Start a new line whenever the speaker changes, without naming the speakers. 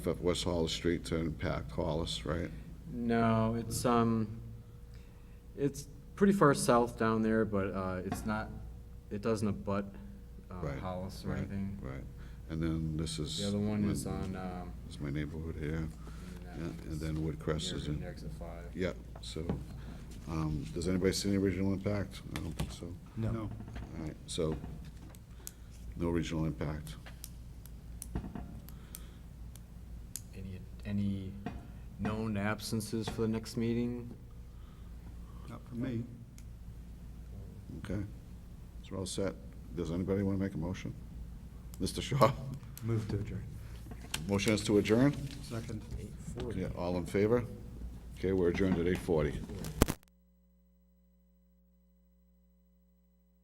of West Hollis Street to impact Hollis, right?
No, it's, um, it's pretty far south down there, but, uh, it's not, it doesn't abut, uh,
Right,
Hollis or
right, Mm.
anything.
Right, and then this is.
The other one is
my-
on, um.
It's my neighborhood here,
in,
yeah,
uh,
and then Woodcrest
near
is in,
Exit five.
yeah, so, um, does anybody see any regional impact? I don't think so.
No.
All right, so, no regional impact.
Any, any known absences for the next meeting?
Not for me.
Okay, so we're all set. Does anybody want to make a motion? Mr. Shaw,
Move to adjourn.
motion is to adjourn?
Second.
Yeah, all in favor? Okay, we're adjourned at eight forty.